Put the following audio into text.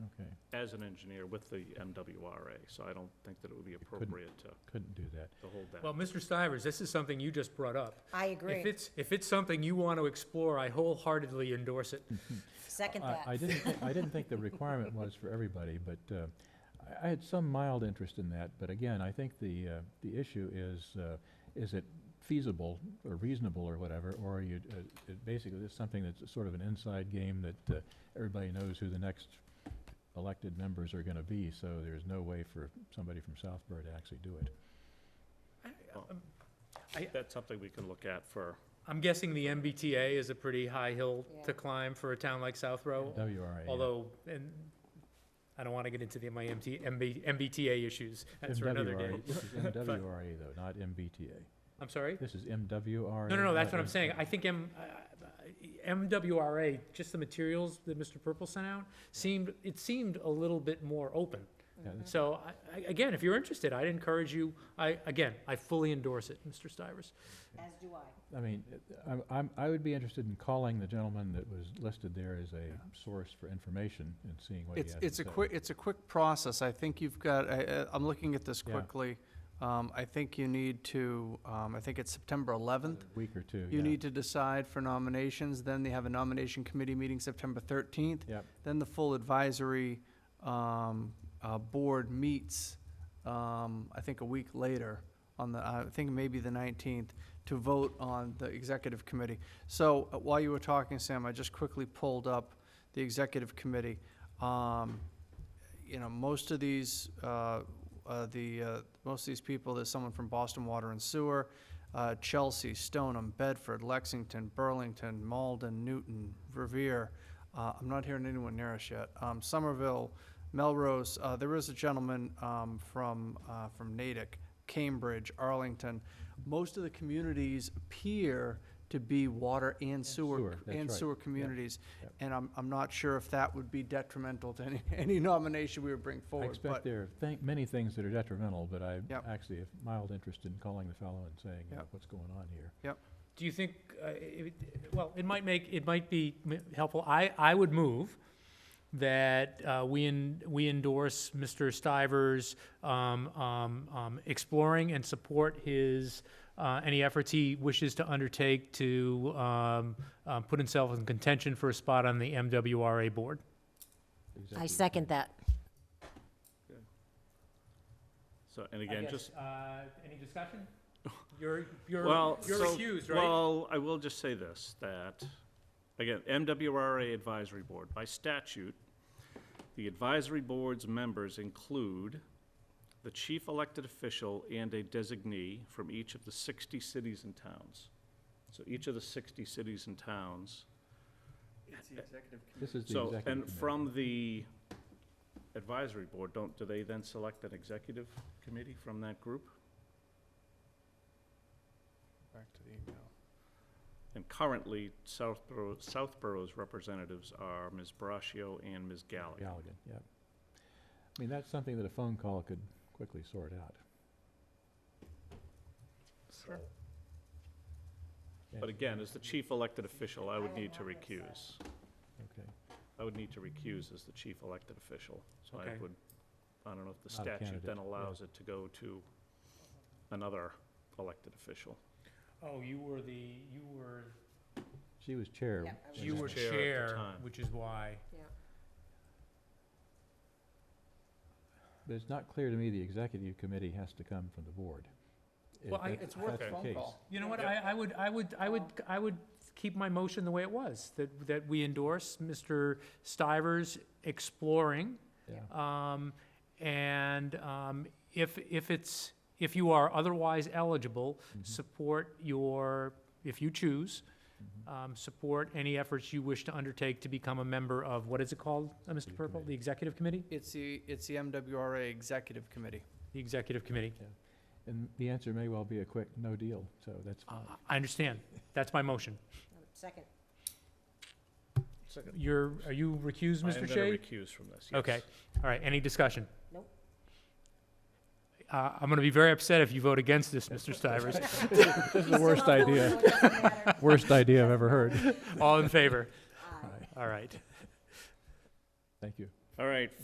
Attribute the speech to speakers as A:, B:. A: as an engineer with the MWRA, so I don't think that it would be appropriate to,
B: Couldn't do that.
A: to hold that.
C: Well, Mr. Stivers, this is something you just brought up.
D: I
C: If
D: agree.
C: it's, if it's something you want to explore, I wholeheartedly endorse it. uh,
D: Second
B: I- I
D: that.
B: didn't, thi- I didn't think the requirement was for everybody, but uh, I- I had some mild interest in that. But again, I think the, uh, the issue is, uh, is it feasible or reasonable or whatever? Or you, uh, it basically, it's something that's sort of an inside game that uh, everybody knows who the next elected members are going to be. So there's no way for somebody from Southborough to actually do it.
C: I-
A: That's something we can look at for,
C: I'm guessing the MBTA is a pretty high hill
D: Yeah.
C: to climb for a town like Southborough,
B: WRA. yeah.
C: although, and I don't want to get into the, my MT, MB MBTA issues. That's for another day.
B: MWRA. This is MWRA though, not MBTA.
C: I'm sorry?
B: This is MWRA.
C: No, no, no, that's
B: not
C: what I'm saying. I think M, uh, MWRA, just the materials that Mr. Purple sent out, seemed, it seemed a little bit more open.
B: Yeah, that's-
C: So, I- I, again, if you're interested, I'd encourage you, I, again, I fully endorse it, Mr. Stivers.
D: As do I.
B: I mean, it- I'm, I'm, I would be interested in calling the gentleman that was listed there as a source for information and seeing what he has to
E: It's,
B: say.
E: it's a quick, it's a quick process. I think you've got, I, I- I'm looking at this
B: Yeah.
E: quickly. Um, I think you need to, um, I think it's September eleventh.
B: Week or two, yeah.
E: You need to decide for nominations, then they have a nomination committee meeting September thirteenth.
B: Yep.
E: Then the full advisory, um, uh, board meets, um, I think a week later on the, I think maybe the nineteenth, to vote on the executive committee. So uh, while you were talking, Sam, I just quickly pulled up the executive committee. Um, you know, most of these, uh, uh, the, uh, most of these people, there's someone from Boston Water and Sewer, uh, Chelsea, Stoneham, Bedford, Lexington, Burlington, Malden, Newton, Revere. Uh, I'm not hearing anyone near us yet. Um, Somerville, Melrose, uh, there is a gentleman, um, from, uh, from Natick, Cambridge, Arlington. Most of the communities appear to be water and
B: sewer,
E: sewer,
B: that's
E: and
B: right.
E: sewer communities.
B: Yep.
E: And I'm, I'm not sure if that would be detrimental to any, any nomination we would bring
B: I
E: forward.
B: expect
E: but-
B: there are thi- many things that are detrimental, but I
E: Yep.
B: actually have mild interest in calling the fellow and saying, you know,
E: Yep.
B: what's going on here?
C: Do you think, uh, it- well, it might make, it might be m- helpful, I, I would move that uh, we, en- we endorse Mr. Stivers um, um, um, exploring and support his, uh, any efforts he wishes to undertake to um, uh, put himself in contention for a spot on the MWRA board.
D: I
B: Executive
D: second that.
A: so, and again, just,
C: uh, Any discussion? You're, you're,
A: well,
C: you're
A: so-
C: recused, right?
A: Well, I will just say this, that, again, MWRA Advisory Board, by statute, the advisory board's members include the chief elected official and a designee from each of the sixty cities and towns. So each of the sixty cities and towns
B: committee. This is the
A: So,
B: executive
A: and
B: committee.
A: from the advisory board, don't, do they then select an executive committee from that group?
E: Back to the email.
A: And currently, Southborough, Southborough's representatives are Ms. Braccio and Ms. Gallagher.
B: Galligan, yep. I mean, that's something that a phone call could quickly sort out.
A: Sure. But again, as the chief elected official, I would need to recuse.
B: Okay.
A: I would need to recuse as the chief elected official. So I
C: Okay.
A: would, I don't know if the
B: Not a
A: statute then
B: candidate, yeah.
A: allows it to go to another elected official.
C: Oh, you were the, you were
B: She was chair.
D: Yeah, I was
B: when
C: You
B: that
C: were
B: was-
A: chair at the
C: chair,
A: time.
C: which is why.
B: But it's not clear to me the executive committee has to come from the board. If
C: Well, I-
B: that-
E: It's worth
B: that's
E: a
B: the
E: phone
B: case.
E: call.
C: You know what, I, I would, I would, I would, I would keep my motion the way it was, that, that we endorse Mr. Stivers exploring.
B: Yeah.
C: Um, and, um, if, if it's, if you are otherwise eligible, support your, if you choose,
B: Mm-hmm.
C: um, support any efforts you wish to undertake to become a member of, what is it called, uh, Mr. Purple? The Executive Committee?
E: It's the, it's the MWRA Executive Committee.
C: The Executive Committee.
B: And the answer may well be a quick no deal, so that's fine.
C: Uh, I- I understand. That's my motion.
D: Second.
C: You're, are you recused, Mr.
A: I am
C: Shea?
A: going to recuse from this, yes.
C: Okay, all right, any discussion?
D: Nope.
C: Uh, I'm gonna be very upset if you vote against this, Mr. Stivers.
B: This is the worst idea, worst idea I've ever heard.
C: All in favor?
D: Aye.
C: All right.
B: Thank you.
A: All right,